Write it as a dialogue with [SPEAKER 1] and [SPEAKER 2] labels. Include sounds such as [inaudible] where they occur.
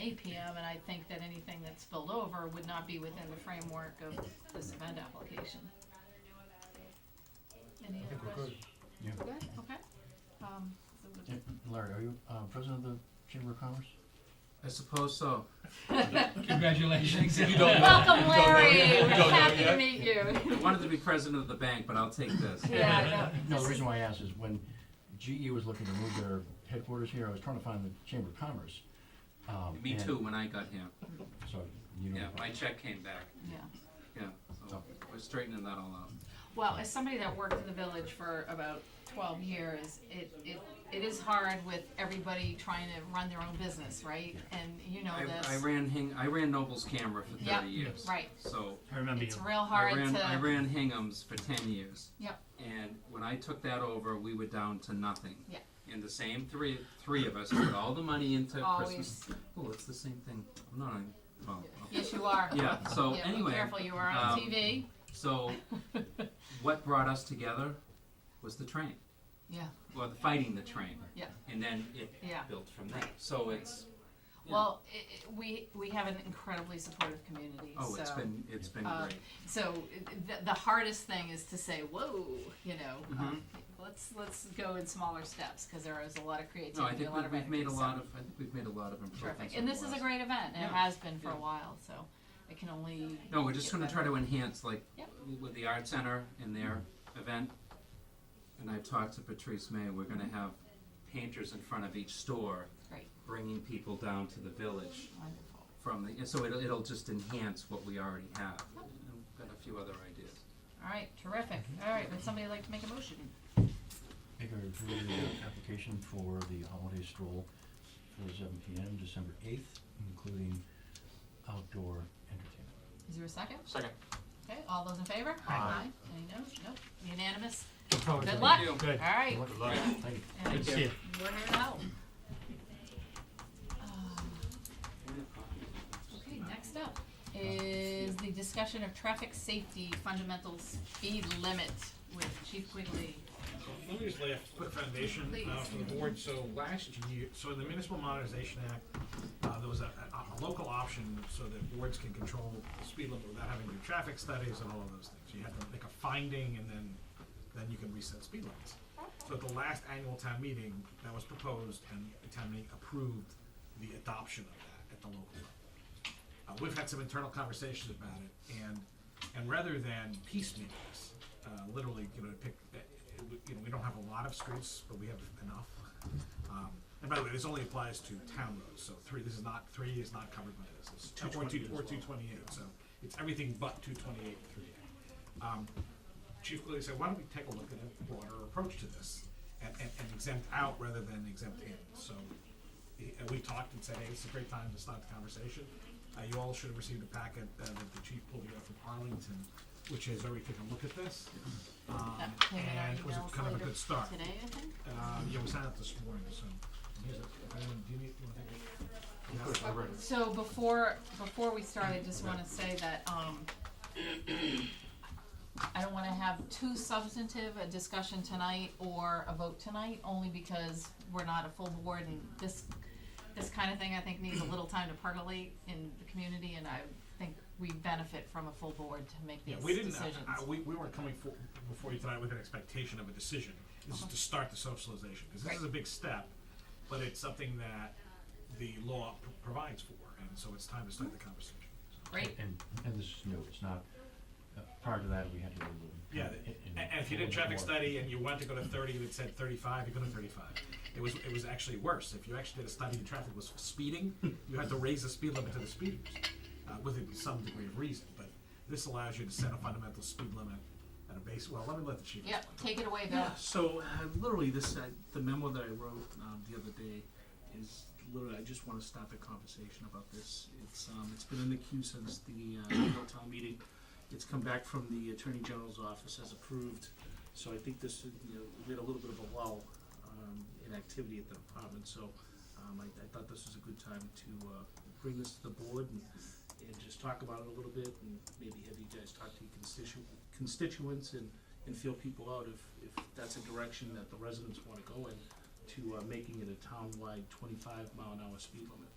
[SPEAKER 1] eight PM, and I think that anything that's spilled over would not be within the framework of this event application. Any
[SPEAKER 2] I
[SPEAKER 1] other
[SPEAKER 2] think we're
[SPEAKER 1] questions?
[SPEAKER 2] good.
[SPEAKER 3] Yeah.
[SPEAKER 1] We're good, okay. Um, so we'll
[SPEAKER 3] Yeah, Larry, are you, uh, president of the Chamber of Commerce?
[SPEAKER 4] I suppose so.
[SPEAKER 1] just-
[SPEAKER 5] Congratulations.
[SPEAKER 4] You don't know.
[SPEAKER 1] Welcome, Larry,
[SPEAKER 5] You
[SPEAKER 1] we're
[SPEAKER 5] don't know
[SPEAKER 1] happy to
[SPEAKER 5] yet?
[SPEAKER 1] meet you.
[SPEAKER 4] [laughs] I wanted to be president of the bank, but I'll take this.
[SPEAKER 1] Yeah, no,
[SPEAKER 3] No, the
[SPEAKER 1] this is,
[SPEAKER 3] reason why I asked is when GE was looking to move their headquarters here, I was trying to find the Chamber of Commerce. um,
[SPEAKER 4] Me
[SPEAKER 3] and-
[SPEAKER 4] too, when I got here.
[SPEAKER 3] So, you know.
[SPEAKER 4] Yeah, my check came back.
[SPEAKER 1] yeah.
[SPEAKER 4] Yeah, so we're straightening that all out.
[SPEAKER 1] Well, as somebody that worked in the village for about twelve years, it, it, it is hard with everybody trying to run their own business, right? And you know
[SPEAKER 4] I, I
[SPEAKER 1] this,
[SPEAKER 4] ran Hing, I ran Noble's camera for
[SPEAKER 1] Yeah.
[SPEAKER 4] thirty years.
[SPEAKER 1] right,
[SPEAKER 4] So
[SPEAKER 5] I remember you.
[SPEAKER 1] it's real
[SPEAKER 4] I
[SPEAKER 1] hard
[SPEAKER 4] ran, I
[SPEAKER 1] to,
[SPEAKER 4] ran Hingham's for ten years.
[SPEAKER 1] Yep.
[SPEAKER 4] And when I took that over, we were down to nothing.
[SPEAKER 1] Yeah.
[SPEAKER 4] And the same three, three of us put all the money into Christmas.
[SPEAKER 1] always,
[SPEAKER 4] Oh, it's the same thing. I'm not on, well,
[SPEAKER 1] yes, you are.
[SPEAKER 4] yeah, so
[SPEAKER 1] Yeah, be
[SPEAKER 4] anyway.
[SPEAKER 1] Careful, you are on
[SPEAKER 4] um,
[SPEAKER 1] TV, [laughs]
[SPEAKER 4] So, what brought us together was the train.
[SPEAKER 1] Yeah.
[SPEAKER 4] Well, the fighting the train.
[SPEAKER 1] Yeah.
[SPEAKER 4] And then it
[SPEAKER 1] Yeah.
[SPEAKER 4] built from there. So it's yeah.
[SPEAKER 1] well, i i we, we have an incredibly supportive community, so.
[SPEAKER 4] oh, it's been it's been
[SPEAKER 1] uh,
[SPEAKER 4] great.
[SPEAKER 1] So the, the hardest thing is to say, whoa, you know,
[SPEAKER 4] Mm-hmm.
[SPEAKER 1] um, let's, let's go in smaller steps, cause there is a lot of
[SPEAKER 4] No, I
[SPEAKER 1] creativity, a
[SPEAKER 4] think
[SPEAKER 1] lot
[SPEAKER 4] we,
[SPEAKER 1] of
[SPEAKER 4] we've made a
[SPEAKER 1] energy, so-
[SPEAKER 4] lot of I think we've made a lot of improvements.
[SPEAKER 1] Terrific,
[SPEAKER 4] over
[SPEAKER 1] and this
[SPEAKER 4] the
[SPEAKER 1] is a
[SPEAKER 4] last-
[SPEAKER 1] great event, and it
[SPEAKER 4] Yeah.
[SPEAKER 1] has been for a
[SPEAKER 4] Yeah.
[SPEAKER 1] while, so it can only.
[SPEAKER 4] No, we're just
[SPEAKER 1] get
[SPEAKER 4] going to try
[SPEAKER 1] better.
[SPEAKER 4] to enhance like
[SPEAKER 1] Yep. Mm-hmm.
[SPEAKER 4] with the art center and their event. And I've talked to Patrice May. We're going to have painters in front of each store,
[SPEAKER 1] Great.
[SPEAKER 4] bringing people down to the village.
[SPEAKER 1] Wonderful.
[SPEAKER 4] from the, so it'll, it'll just enhance what we already have. And I've got a few other ideas.
[SPEAKER 1] All right, terrific,
[SPEAKER 4] Mm-hmm.
[SPEAKER 1] all right, would somebody like to make a motion?
[SPEAKER 3] Make a review of the application for the holiday stroll for seven P M, December eighth, including outdoor entertainment.
[SPEAKER 1] Is there a second?
[SPEAKER 4] Second.
[SPEAKER 1] Okay, all those in favor?
[SPEAKER 5] Aye.
[SPEAKER 1] Any no, nope, unanimous,
[SPEAKER 5] Look forward to
[SPEAKER 1] good
[SPEAKER 5] it.
[SPEAKER 1] luck, all
[SPEAKER 4] you.
[SPEAKER 5] Good.
[SPEAKER 1] right,
[SPEAKER 3] Good luck. Thank you.
[SPEAKER 1] and
[SPEAKER 5] Good to see you.
[SPEAKER 1] we're here now. Uh, Okay, next up is the discussion of traffic safety fundamental speed limit with Chief Quigley.
[SPEAKER 2] Let me just lay a quick foundation uh, for the board. So last year, so in the Municipal Modernization Act, uh, there was a, a, a local option so that boards can control the speed limit without having to do traffic studies and all of those things. You have to make a finding and then, then you can reset speed limits. So at the last annual town meeting, that was proposed and the town meeting approved the adoption of that at the local level. Uh, we've had some internal conversations about it, and, and rather than piecemeal this, uh, literally, you know, pick, uh, uh, we- you know, we don't have a lot of streets, but we have enough. Um, and by the way, this only applies to town roads, so three, this is not, three is not covered by this, it's two, or two, or two twenty-eight, so it's everything but two twenty-eight and three A. Um, Chief Quigley said, why don't we take a look at a broader approach to this, and, and and exempt out rather than exempt in, so he- and we talked and said, hey, it's a great time to start the conversation. Uh, you all should have received a packet uh, that the chief pulled together from Arlington, which has already taken a look at this. Um,
[SPEAKER 1] That came in our
[SPEAKER 2] and it was a-
[SPEAKER 1] emails
[SPEAKER 2] kind of a
[SPEAKER 1] later
[SPEAKER 2] good start.
[SPEAKER 1] Today, I think?
[SPEAKER 2] Uh, yeah, we signed up this morning, so, here's it. Anyone- do you need, do you want to take it?
[SPEAKER 1] So before, before we start, I just wanna say that, um, I don't wanna have too substantive a discussion tonight or a vote tonight, only because we're not a full board and this, this kinda thing I think needs a little time to percolate in the community and I think we benefit from a full board to make
[SPEAKER 2] Yeah,
[SPEAKER 1] these
[SPEAKER 2] we didn't,
[SPEAKER 1] decisions.
[SPEAKER 2] uh, uh, we, we weren't coming for, before you tonight with an expectation of a decision. This is to start the socialization, because this is a big step, but it's something that the law p- provides for, and so it's time to start the conversation. So-
[SPEAKER 1] Great,
[SPEAKER 3] And, and this is new, it's not, uh, prior to that, we had to do a little.
[SPEAKER 2] Yeah, th- and, and if you did a traffic study and you wanted to go to thirty and it said thirty-five, you go to thirty-five. It was, it was actually worse, if you actually did a study and traffic was speeding, you had to raise the speed limit to the speeders, uh, with some degree of reason, but this allows you to set a fundamental speed limit at a base, well, let me let the chief
[SPEAKER 1] yep,
[SPEAKER 2] explain.
[SPEAKER 1] take it away, Bill.
[SPEAKER 6] So uh, literally, this uh, the memo that I wrote um, the other day is literally I just want to start the conversation about this. It's um, it's been in the queue since the uh, annual town meeting. It's come back from the attorney general's office as approved. So I think this you know we had a little bit of a lull um, in activity at the department. So um, I, I thought this was a good time to uh, bring this to the board and, and just talk about it a little bit and maybe have you guys talk to your constitu- constituents and and feel people out if, if that's a direction that the residents wanna go in, to, uh, making it a town-wide twenty-five mile an hour speed limit.